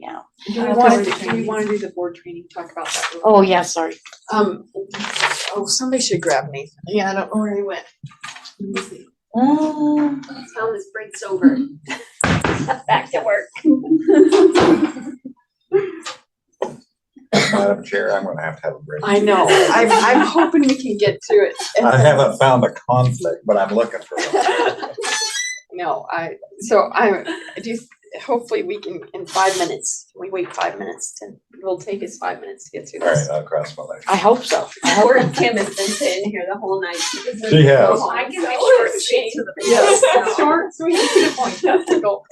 now. Do we Uh, wanna, board do we training. wanna do the board training, talk about that? real Oh, yeah, sorry. quick? Um, oh, somebody should grab me. Yeah, I don't know where he went. Let me see. Oh, Found his brain sober. Back to work. Madam Chair, I'm gonna have to have a break. I know, I'm, I'm hoping we can get to it. I haven't found a conflict, but I'm looking for one. No, I, so I, I do, hopefully we can, in five minutes, we wait five minutes to, it'll take us five minutes to get through All right, this. I'll cross my legs. I hope so. I hope- Poor Kim has been sitting here the whole night. She has. I can make sure it's straight to the point. Yes, short, sweet, to the point, that's the goal.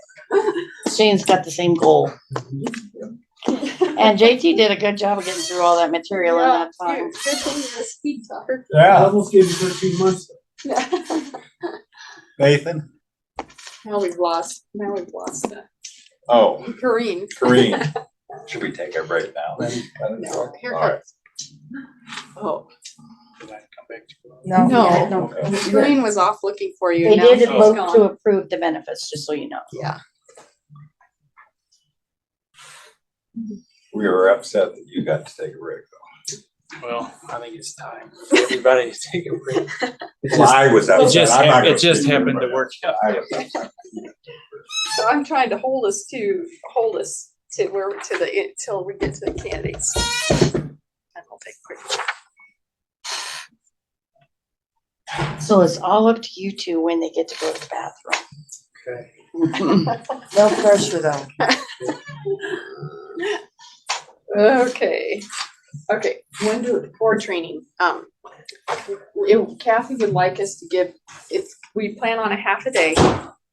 Shane's got the same goal. And JT did a good job of getting through all that material in that Yeah, time. Good good thing you're a speed talker. I Yeah, almost gave you thirteen months. Nathan? Now we've lost, now we've lost uh, Oh, Corinne. Kareem. Should we take our break now then? No, here All right. comes. Oh, Did I come back to you? No. No. yeah, no. Okay. Corinne was off looking for you. They now did she's vote gone. to approve the benefits, just so you know. Yeah, We were upset that you got to take a break. Well, I think it's time for everybody to take a break. It Well, I was upset. just I'm not hap- it gonna just speak happened to about work it. I was upset. so I'm trying to hold us to, hold us to where, to the, till we get to the candidates. And we'll take a quick. So it's all up to you two when they get to go to the Okay. bathroom. No pressure though. Okay, okay, when do, board training, um, it- Kathy would like us to give, if we plan on a half a day,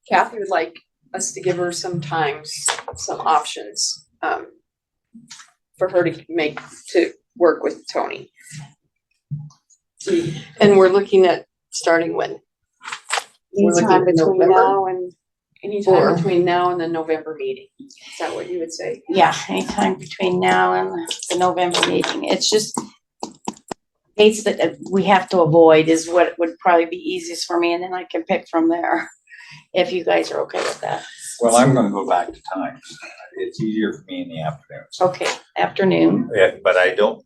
Kathy would like us to give her some times, some options, um, for her to make, to work with Tony. And we're looking at starting when? We're looking Anytime at between November? now and Anytime Or- between now and the November meeting, is that what you would say? Yeah, anytime between now and the November meeting. It's just dates that uh, we have to avoid is what would probably be easiest for me, and then I can pick from there, if you guys are okay with that. Well, I'm gonna go back to times. It's easier for me in the afternoons. Okay, afternoon. Yeah, but I don't,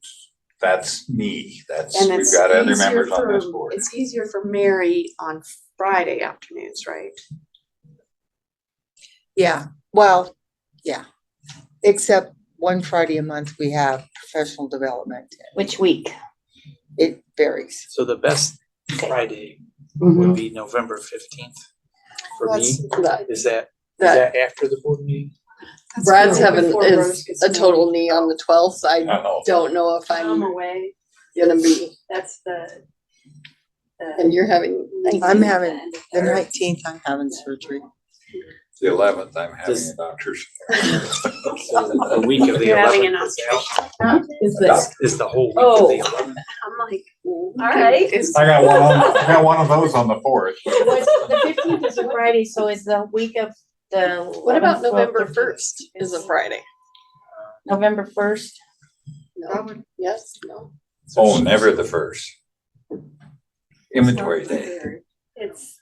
that's me. That's, And we've it's got other easier members on this for- board. It's easier for Mary on Friday afternoons, right? Yeah, well, yeah. Except one Friday a month, we have professional development. Which week? It varies. So the best Okay. Friday Mhm. would be November fifteenth for me. That's that- Is that, is That- that after the board meeting? That's Brad's having before Rose is gets a married. total knee on the twelfth. I Uh-oh. don't know if Um, I'm I'm away, gonna be, that's the. the- and you're having, I'm having- The nineteenth, I'm having surgery. The eleventh, I'm having Does- a doctor's. So The the week of the You're having an eleventh is out. Is Doc- this, Is the whole week Oh. of the eleventh. I'm like, all right. is, I got one, on- I got one of those on the fourth. The fifteenth is a Friday, so is the week of the. What about 11th, 12th, November 13th? first is a Friday? November first? No, yes, no. Oh, never the first. Inventory day. "Oh, It's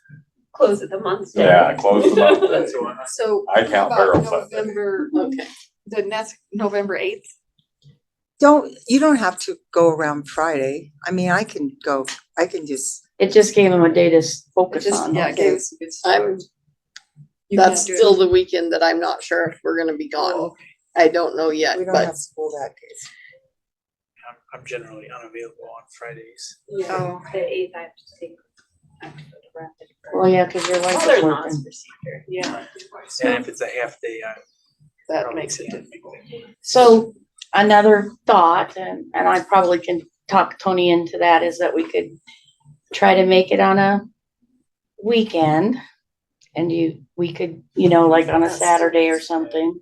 close at the month day. Yeah, close the month day. So, uh, so I count about barrels that day. November, Okay. the next, November eighth? Don't, you don't have to go around Friday. I mean, I can go, I can just, It just gave him a day to s- focus Just, on. yeah, okay. it gave us a good start. I'm, You that's can't do it. still the weekend that I'm not sure if we're gonna be Oh, gone. I don't know yet, we don't but have school that day. I'm, I'm generally unavailable on Fridays. Yeah, Oh, the eighth, I have to take. I have to go to Rapid Well, yeah, cause your wife is Mother-in-law's working. procedure, yeah. And if it's a half day, I that probably makes it can't different. make So another thought, and, and I probably can talk Tony into that, is that we could try to make it on a weekend. And you, we could, you know, like on a Saturday or something.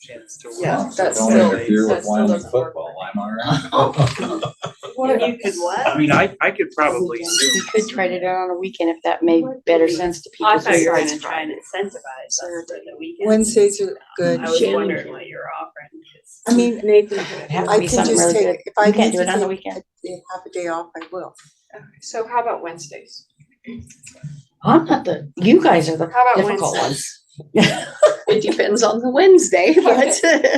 Shannon's still Yeah, working. that's Don't still- interfere that with still Wyoming doesn't work. football, I'm all right. And you could I what? mean, I, I could probably Weekend. do. We could try to do it on a weekend if that made better sense to people. I thought you were besides gonna try and Friday. incentivize us for the weekend. Wednesdays are good. I was wondering what you were offering. 'cause- I mean, Nathan, It'd have I to be can something just really good. take, if I You can't need do to it on the take weekend. a- half a day off, I will. so how about Wednesdays? I'm not the, you guys are the How about difficult Wednesday? ones. it depends on the Wednesday, but.